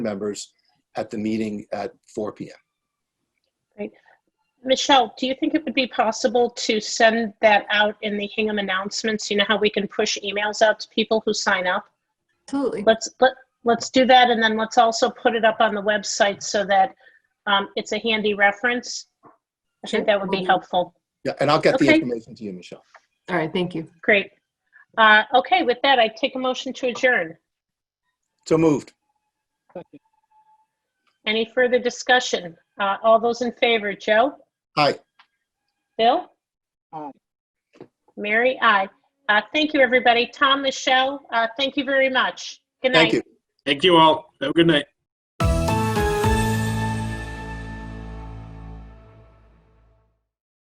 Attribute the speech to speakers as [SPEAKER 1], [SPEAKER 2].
[SPEAKER 1] members at the meeting at 4 PM.
[SPEAKER 2] Michelle, do you think it would be possible to send that out in the Hingham announcements? You know how we can push emails out to people who sign up?
[SPEAKER 3] Absolutely.
[SPEAKER 2] Let's, let, let's do that and then let's also put it up on the website so that um, it's a handy reference. I
[SPEAKER 3] Sure.
[SPEAKER 2] think that would be helpful.
[SPEAKER 1] Yeah, and I'll get the
[SPEAKER 2] Okay.
[SPEAKER 1] information to you, Michelle.
[SPEAKER 3] All right, thank you.
[SPEAKER 2] Great. Uh, okay, with that, I take a motion to adjourn.
[SPEAKER 1] So moved.
[SPEAKER 2] Any further discussion? Uh, all those in favor, Joe?
[SPEAKER 1] Hi,
[SPEAKER 2] Bill?
[SPEAKER 4] Aye.
[SPEAKER 2] Mary, aye. Uh, thank you, everybody. Tom, Michelle, uh, thank you very much. Good night.
[SPEAKER 1] thank you.
[SPEAKER 5] Thank you all. Have a good night.